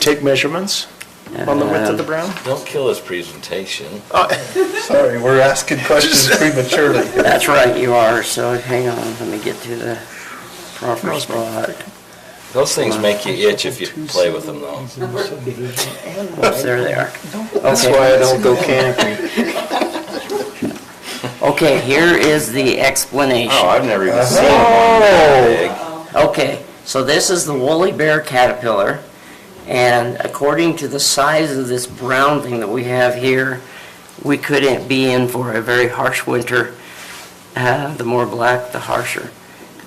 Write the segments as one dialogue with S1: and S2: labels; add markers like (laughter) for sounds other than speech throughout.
S1: take measurements on the width of
S2: Uh,
S1: the brown?
S3: Don't kill his presentation.
S4: Sorry, we're asking
S1: (laughs)
S4: questions prematurely.
S2: That's right, you are, so hang on, let me get to the proper spot.
S3: Those things make you itch if you play with them, though.
S2: Whoops, there they are.
S1: That's
S2: Okay.
S1: why I don't go camping.
S2: Okay, here is the explanation. Uh-huh.
S3: Oh, I've never even seen one that
S2: Okay, so this is the woolly bear caterpillar, and according to the size of this brown thing that we have here, we couldn't be in for a very harsh winter. Uh, The more black, the harsher,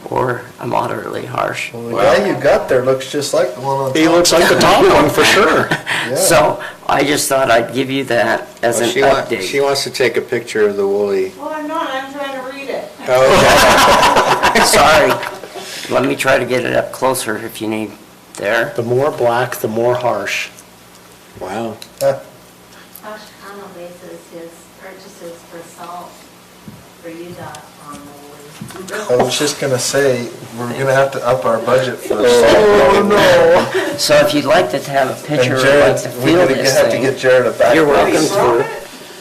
S2: or a moderately harsh.
S4: Well, the guy you got there looks just like the one (laughs) on
S1: He
S4: top.
S1: looks like the top one for
S4: (laughs)
S1: sure.
S4: Yeah.
S2: So I just thought I'd give you that as an
S5: She wa-
S2: update.
S5: She wants to take a picture of the woolly.
S6: Well, I'm not, I'm trying to read it.
S4: Oh,
S2: (laughs) Sorry. Let me try to get it up closer if you need there.
S1: The more black, the more harsh.
S5: Wow.
S6: Ashkana bases his purchases for salt for UDOT on the
S4: I was just gonna say, we're gonna have to up our budget for salt.
S1: no.
S2: So if you'd like to have a
S4: And
S2: picture of
S4: Jared,
S2: like the
S4: we're
S2: field
S4: gonna get-
S2: is
S4: have to get
S2: thing.
S4: Jared a back.
S2: You're
S4: brace.
S2: welcome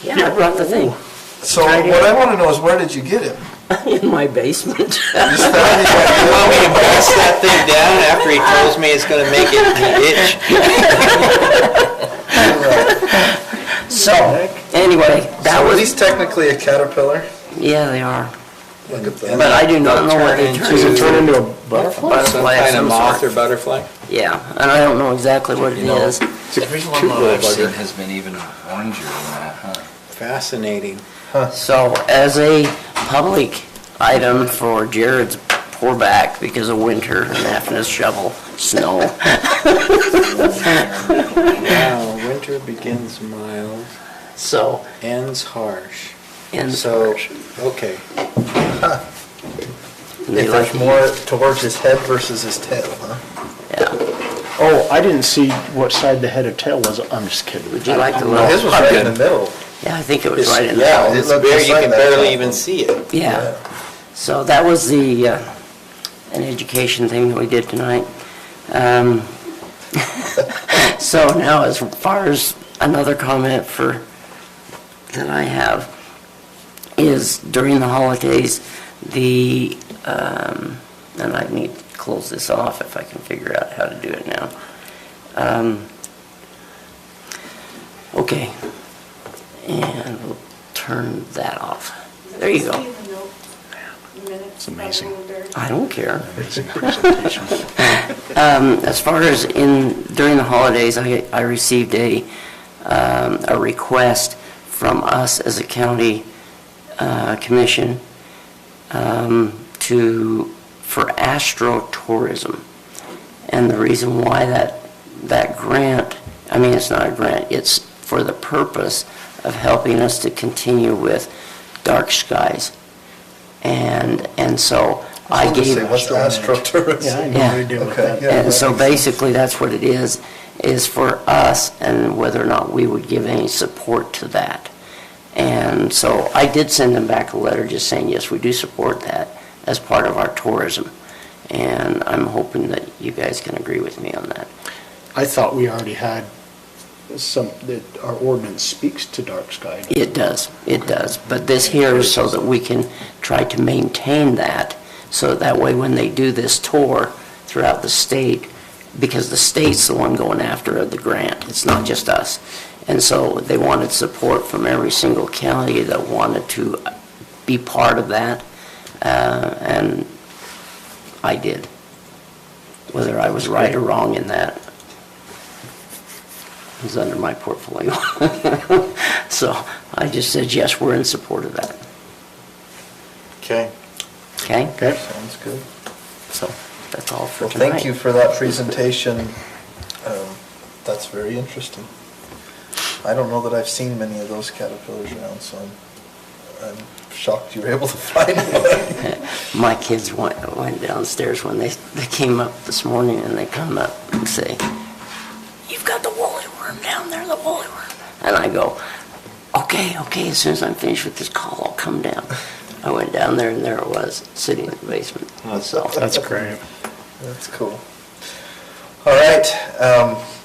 S2: to. Yeah, I brought the thing (laughs)
S4: So what I wanna know is where did you get him?
S2: in my basement.
S4: (laughs)
S2: (laughs)
S4: You just found him
S5: You want me to press that thing down after he tells me it's gonna make it itch?
S2: So, anyway, that
S4: So are these
S2: was,
S4: technically a caterpillar?
S2: yeah, they are.
S4: Look at
S2: But
S4: that.
S2: I do not know what they
S5: Turn
S2: turn
S1: Does it
S2: into.
S1: turn into a butterfly?
S5: Some
S2: Butterfly of
S5: kind of
S2: some
S5: moth
S2: sort.
S5: or butterfly?
S2: Yeah, and I don't know exactly what it
S3: You know,
S2: is.
S3: big. Everyone that I've seen has been even oranger than that, huh?
S5: Fascinating.
S2: So as a public item for Jared's poor back because of winter and having to shovel snow.
S5: Wow, winter begins mild,
S2: So,
S5: ends harsh.
S2: and
S5: So, okay.
S2: They
S4: If there's
S2: like
S4: more towards his head versus his tail, huh?
S1: Oh, I didn't see what side the head or tail was. I'm just kidding.
S2: Would you like to
S4: Well, His
S2: look?
S4: was right in the middle.
S2: Yeah, I think it was right in there.
S5: Yeah,
S4: It
S5: it's
S4: looked
S5: bare,
S4: just
S5: you
S4: like
S5: can
S4: that.
S5: barely even see it.
S2: Yeah. So that was the, uh, an education thing that we did tonight. Um, (laughs) So now, as far as another comment for, that I have, is during the holidays, the, um, and I need to close this off if I can figure out how to do it now. Um, Okay. And we'll turn that off. There you go.
S6: It's amazing.
S2: I don't care. Um, As far as in, during the holidays, I, I received a, um, a request from us as a county uh, commission um, to, for astrotourism. And the reason why that, that grant, I mean, it's not a grant, it's for the purpose of helping us to continue with dark skies. And, and so I
S4: was gonna
S2: gave.
S4: say, What's astrotourism?
S1: Yeah, I
S4: (laughs)
S1: know
S2: Yeah.
S1: what you're doing with
S4: Okay,
S1: that.
S4: yeah.
S2: And so basically, that's what it is, is for us and whether or not we would give any support to that. And so I did send them back a letter just saying, yes, we do support that as part of our tourism. And I'm hoping that you guys can agree with me on that.
S1: I thought we already had some, that our ordinance speaks to dark sky.
S2: It does, it does. But this here is so that we can try to maintain that, so that way when they do this tour throughout the state, because the state's the one going after the grant, it's not just us. And so they wanted support from every single county that wanted to be part of that, uh, and I did. Whether I was right or wrong in that is under my portfolio. (laughs) So I just said, yes, we're in support of that,
S5: Okay.
S2: okay?
S1: Okay?
S4: Sounds good.
S2: So that's all for
S4: Well,
S2: tonight.
S4: thank you for that presentation. (laughs) Um, That's very interesting. I don't know that I've seen many of those caterpillars around, so I'm I'm shocked you were able to (laughs) find one.
S2: (laughs) (laughs) My kids went, went downstairs when they, they came up this morning and they come up and say, you've got the woolly worm down there, the woolly worm. And I go, okay, okay, as soon as I'm finished with this call, I'll come down. I went down there and there it was, sitting in the basement. So
S1: That's great.
S4: That's cool. All right, um, (clears throat)